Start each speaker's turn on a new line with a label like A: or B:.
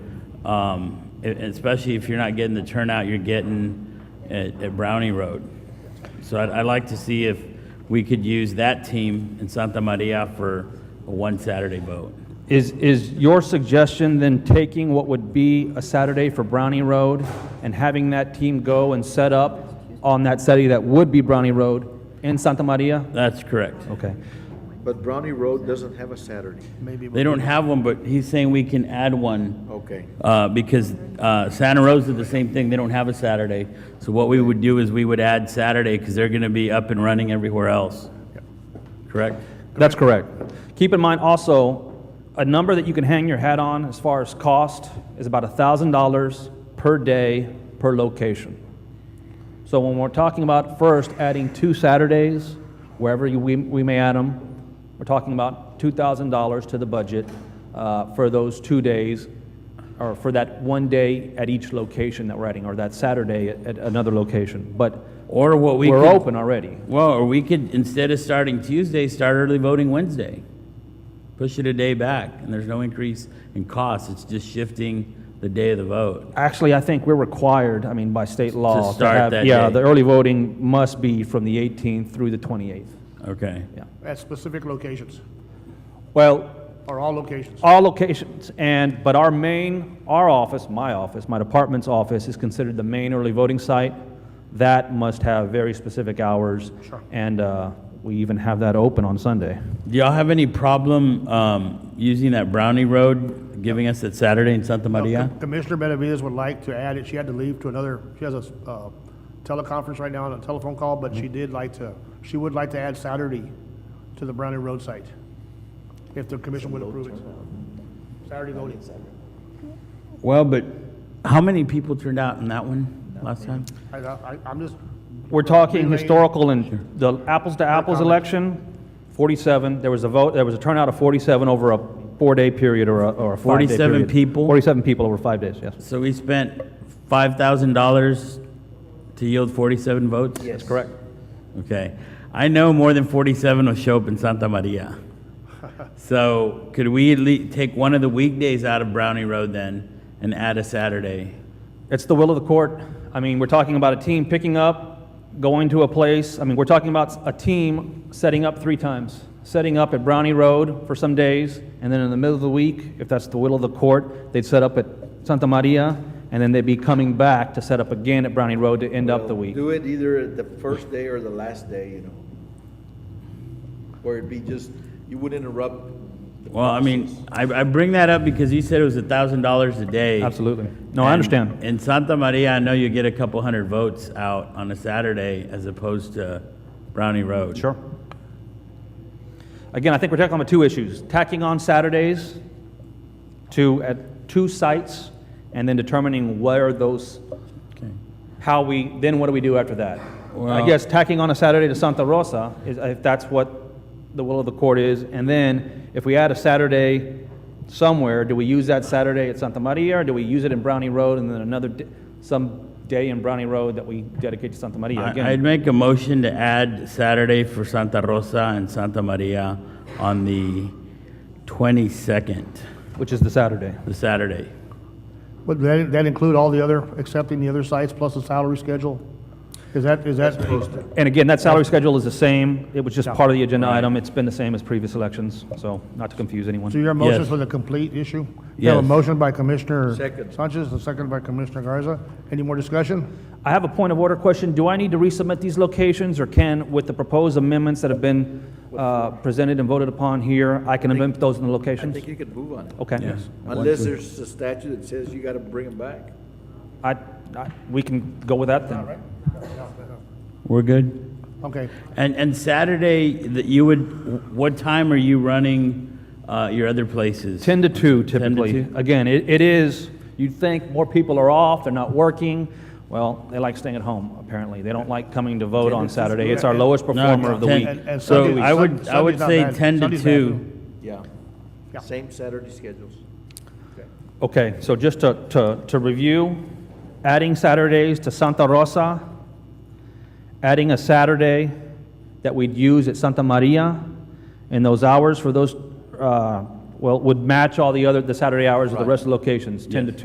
A: um, e- especially if you're not getting the turnout you're getting at, at Brownie Road. So I'd, I'd like to see if we could use that team in Santa Maria for a one Saturday vote.
B: Is, is your suggestion then taking what would be a Saturday for Brownie Road and having that team go and set up on that Saturday that would be Brownie Road in Santa Maria?
A: That's correct.
B: Okay.
C: But Brownie Road doesn't have a Saturday.
A: They don't have one, but he's saying we can add one.
C: Okay.
A: Uh, because uh, Santa Rosa, the same thing, they don't have a Saturday. So what we would do is we would add Saturday because they're going to be up and running everywhere else. Correct?
B: That's correct. Keep in mind also, a number that you can hang your hat on as far as cost is about $1,000 per day per location. So when we're talking about first adding two Saturdays, wherever you, we, we may add them, we're talking about $2,000 to the budget uh, for those two days, or for that one day at each location that we're adding, or that Saturday at, at another location. But
A: Or what we
B: we're
A: could-
B: open already.
A: Well, or we could, instead of starting Tuesday, start early voting Wednesday. Push it a day back, and there's no increase in cost. It's just shifting the day of the vote.
B: Actually, I think we're required, I mean, by state law.
A: start
B: have-
A: that
B: Yeah,
A: day.
B: the early voting must be from the 18th through the 28th.
A: Okay.
B: Yeah.
D: At specific locations,
B: Well,
D: or all locations.
B: all locations, and, but our main, our office, my office, my department's office is considered the main early voting site. That must have very specific hours.
D: Sure.
B: And uh, we even have that open on Sunday.
A: Do y'all have any problem um, using that Brownie Road, giving us that Saturday in Santa Maria?
D: Commissioner Benavides would like to add it, she had to leave to another, she has a uh, teleconference right now on a telephone call, but she did like to, she would like to add Saturday to the Browning Road site, if the commission would approve it. Saturday voting.
A: Well, but how many people turned out in that one last time?
D: I- I- I'm just,
B: We're talking
D: Relay-
B: historical and the apples-to-apples
D: Your comments.
B: election, 47, there was a vote, there was a turnout of 47 over a four-day period or a, or a five-day
A: 47
B: period.
A: people?
B: 47 people over five days, yes.
A: So we spent $5,000 to yield 47 votes?
B: That's correct.
A: Okay. I know more than 47 will show up in Santa Maria. So could we at least take one of the weekdays out of Brownie Road then and add a Saturday?
B: It's the will of the court. I mean, we're talking about a team picking up, going to a place. I mean, we're talking about a team setting up three times. Setting up at Brownie Road for some days, and then in the middle of the week, if that's the will of the court, they'd set up at Santa Maria, and then they'd be coming back to set up again at Brownie Road to end up the week.
C: Do it either the first day or the last day, you know? Or it'd be just, you would interrupt. the
A: Well, I mean, I, I bring that up because you said it was a thousand dollars a day.
B: Absolutely. No, I
A: And
B: understand.
A: In Santa Maria, I know you get a couple hundred votes out on a Saturday as opposed to Brownie Road.
B: Sure. Again, I think we're tackling the two issues, tacking on Saturdays to, at two sites, and then determining where those,
A: Okay.
B: how we, then what do we do after that? I
A: Well-
B: guess tacking on a Saturday to Santa Rosa is, if that's what the will of the court is, and then if we add a Saturday somewhere, do we use that Saturday at Santa Maria, or do we use it in Brownie Road, and then another, d- some day in Brownie Road that we dedicate to Santa Maria? Again,
A: I- I'd make a motion to add Saturday for Santa Rosa and Santa Maria on the 22nd,
B: Which is the Saturday.
A: the Saturday.
D: would that that include all the other, accepting the other sites plus the salary schedule? Is that, is that?
B: And again, that salary schedule is the same. It was just part of the agenda item. It's been the same as previous elections, so not to confuse
D: So
B: anyone.
D: your motion
A: Yes.
D: for the complete issue? You have a
A: Yes.
D: motion by Commissioner
C: Second.
D: Sanchez, a second by Commissioner Garza. Any more discussion?
B: I have a point of order question. Do I need to resubmit these locations, or can, with the proposed amendments that have been uh, presented and voted upon here, I can amend those in the
C: I
B: locations?
C: think you could move on it.
B: Okay.
A: Yes.
C: Unless there's a statute that says you gotta bring them back.
B: I, I- we can go with that then.
A: We're good?
D: Okay,
A: And, and Saturday, that you would, what time are you running uh, your other places?
B: 10 to 2 typically.
A: 2?
B: Again, it it is, you'd think more people are off, they're not working. Well, they like staying at home, apparently. They don't like coming to vote on Saturday. It's our lowest performer of the
A: 10
B: week.
D: And- and
A: So
D: Sunday-
A: I would,
D: Sun-
A: I would
D: Sunday's
A: say
D: not bad.
A: 10 to
D: Sunday's
A: 2.
C: Yeah.
D: Yeah.
C: Same Saturday schedules.
B: Okay, so just to, to, to review, adding Saturdays to Santa Rosa, adding a Saturday that we'd use at Santa Maria, and those hours for those, uh, well, would match all the other, the Saturday hours of the rest of the locations, 10 to 2.